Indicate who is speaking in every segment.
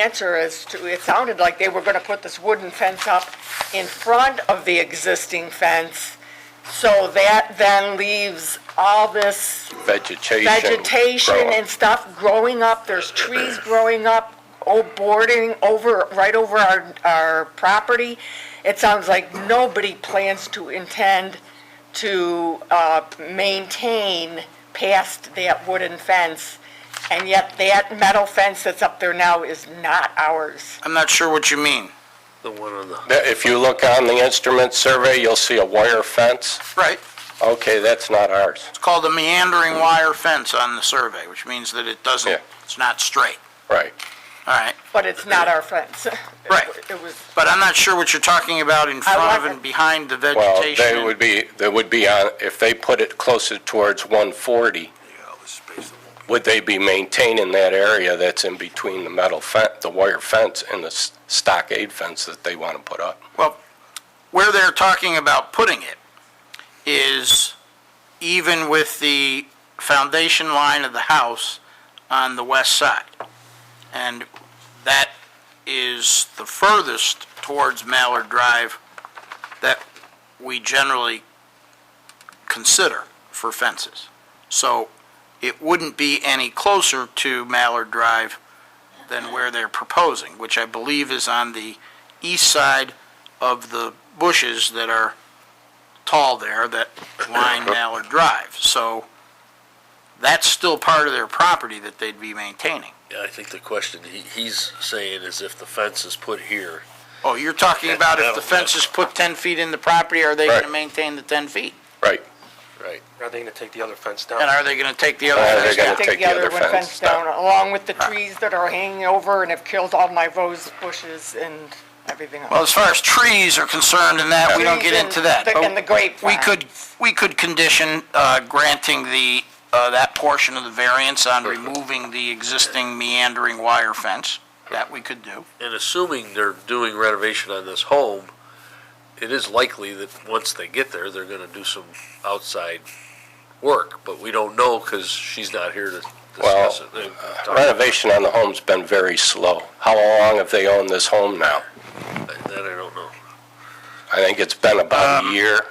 Speaker 1: answer as to, it sounded like they were going to put this wooden fence up in front of the existing fence, so that then leaves all this
Speaker 2: vegetation.
Speaker 1: vegetation
Speaker 2: growing.
Speaker 1: and stuff growing up, there's trees growing up, oh, boarding over, right over our, our property. It sounds like nobody plans to intend to, uh, maintain past that wooden fence. And yet that metal fence that's up there now is not ours.
Speaker 3: I'm not sure what you mean.
Speaker 4: The one on the,
Speaker 2: There- If you look on the instrument survey, you'll see a wire fence.
Speaker 3: Right.
Speaker 2: Okay, that's not ours.
Speaker 3: It's called a meandering wire fence on the survey, which means that it
Speaker 2: Yeah.
Speaker 3: doesn't, it's not straight.
Speaker 2: Right.
Speaker 3: All right.
Speaker 1: But it's not our fence.
Speaker 3: Right.
Speaker 1: It was,
Speaker 3: But I'm not sure what you're talking about in front of
Speaker 1: wasn't-
Speaker 3: and behind the
Speaker 2: Well,
Speaker 3: vegetation.
Speaker 2: they would be, they would be on, if they put it closer towards 140, would they be maintaining that area that's in between the metal fence, the wire fence and the s- stockade fence that they want to put up?
Speaker 3: Where they're talking about putting it is even with the foundation line of the house on the west side. And that is the furthest towards Mallard Drive that we generally consider for fences. So it wouldn't be any closer to Mallard Drive than where they're proposing, which I believe is on the east side of the bushes that are tall there that line Mallard Drive. So that's still part of their property that they'd be maintaining.
Speaker 4: Yeah, I think the question he, he's saying is if the fence is put here,
Speaker 3: Oh, you're talking about if the fence is put 10 feet in the property, are they going to
Speaker 2: Right.
Speaker 3: maintain the 10 feet?
Speaker 2: Right.
Speaker 4: right?
Speaker 5: Are they gonna take the other fence
Speaker 3: And
Speaker 5: down?
Speaker 3: are they going to take the other
Speaker 2: Uh, they're
Speaker 3: fence
Speaker 2: gonna
Speaker 3: down?
Speaker 1: take the other one fence down, along with the trees that are hanging over and have killed all my rose bushes and everything else.
Speaker 3: Well, as far as trees are concerned and that, we don't get
Speaker 1: Trees and
Speaker 3: into that.
Speaker 1: the-
Speaker 3: but
Speaker 1: and the grape
Speaker 3: We could, we could condition uh, granting the, uh, that portion of the variance on removing the existing meandering wire fence. That we could do.
Speaker 4: And assuming they're doing renovation on this home, it is likely that once they get there, they're gonna do some outside work, but we don't know because she's not here to
Speaker 2: Well,
Speaker 4: discuss it. and talk about it.
Speaker 2: Renovation on the home's been very slow. How long have they owned this home now?
Speaker 4: That I don't know.
Speaker 2: I think it's been about
Speaker 4: Um,
Speaker 2: a year.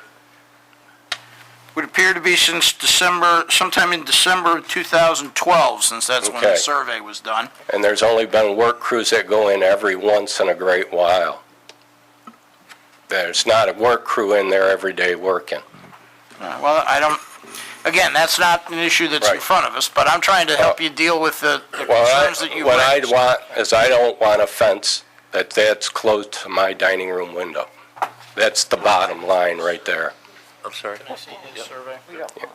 Speaker 3: Would appear to be since December, sometime in December of 2012, since that's when the
Speaker 2: Okay.
Speaker 3: survey was done.
Speaker 2: And there's only been work crews that go in every once in a great while. There's not a work crew in there every day working.
Speaker 3: Uh, Well, I don't, again, that's not an issue that's in
Speaker 2: Right.
Speaker 3: front of us, but I'm trying to help you deal with the the
Speaker 2: Well, I-
Speaker 3: concerns that you
Speaker 2: what I'd
Speaker 3: raised.
Speaker 2: want is I don't want a fence that that's close to my dining room window. That's the bottom line right there.
Speaker 4: I'm sorry.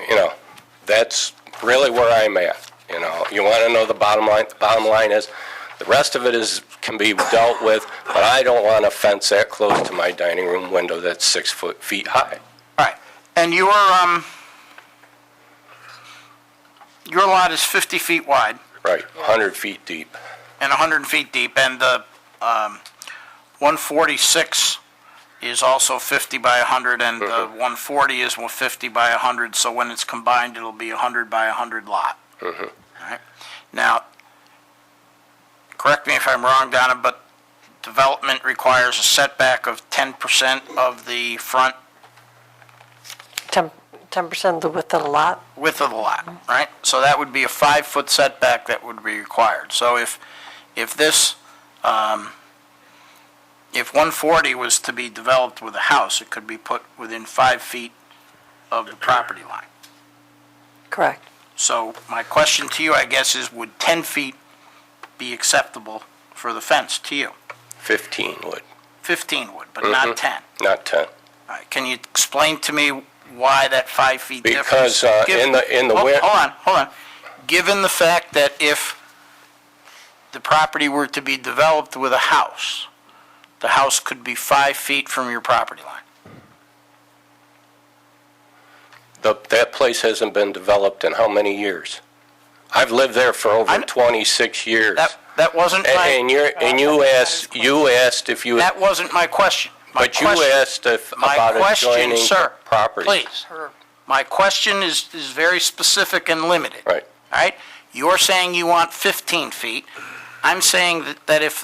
Speaker 2: You know, that's really where I'm at, you know. You want to know the bottom line? The bottom line is, the rest of it is, can be dealt with, but I don't want a fence that close to my dining room window that's six foot, feet high.
Speaker 3: Right, and your, um, your lot is 50 feet wide
Speaker 2: Right, 100 feet deep.
Speaker 3: and 100 feet deep, and the, um, 146 is also 50 by 100, and the 140 is 150 by 100, so when it's combined, it'll be 100 by 100 lot. All right. Now, correct me if I'm wrong, Donna, but development requires a setback of 10% of the front
Speaker 6: Ten percent of the width of the lot?
Speaker 3: width of the lot, right? So that would be a five-foot setback that would be required. So if, if this, um, if 140 was to be developed with a house, it could be put within five feet of the property line.
Speaker 6: Correct.
Speaker 3: So my question to you, I guess, is would 10 feet be acceptable for the fence to you?
Speaker 2: 15 would,
Speaker 3: 15 would, but
Speaker 2: Mm-hmm.
Speaker 3: not 10.
Speaker 2: not 10.
Speaker 3: All right, Can you explain to me why that five feet difference?
Speaker 2: Because uh,
Speaker 3: Give- Oh,
Speaker 2: in the, in the,
Speaker 3: Hold
Speaker 2: win-
Speaker 3: hold on, hold on. Given the fact that if the property were to be developed with a house, the house could be five feet from your property line.
Speaker 2: the- that place hasn't been developed in how many years? I've lived there for over
Speaker 3: I'm-
Speaker 2: 26 years.
Speaker 3: That, that wasn't
Speaker 2: And-
Speaker 3: my,
Speaker 2: And you're, and you asked, you asked if you,
Speaker 3: that wasn't my question. My
Speaker 2: but you
Speaker 3: question-
Speaker 2: asked if
Speaker 3: my
Speaker 2: about
Speaker 3: question,
Speaker 2: adjoining
Speaker 3: sir,
Speaker 2: property.
Speaker 3: Please.
Speaker 1: Her-
Speaker 3: My question is, is very specific and limited.
Speaker 2: Right.
Speaker 3: All right? You're saying you want 15 feet. I'm saying that, that if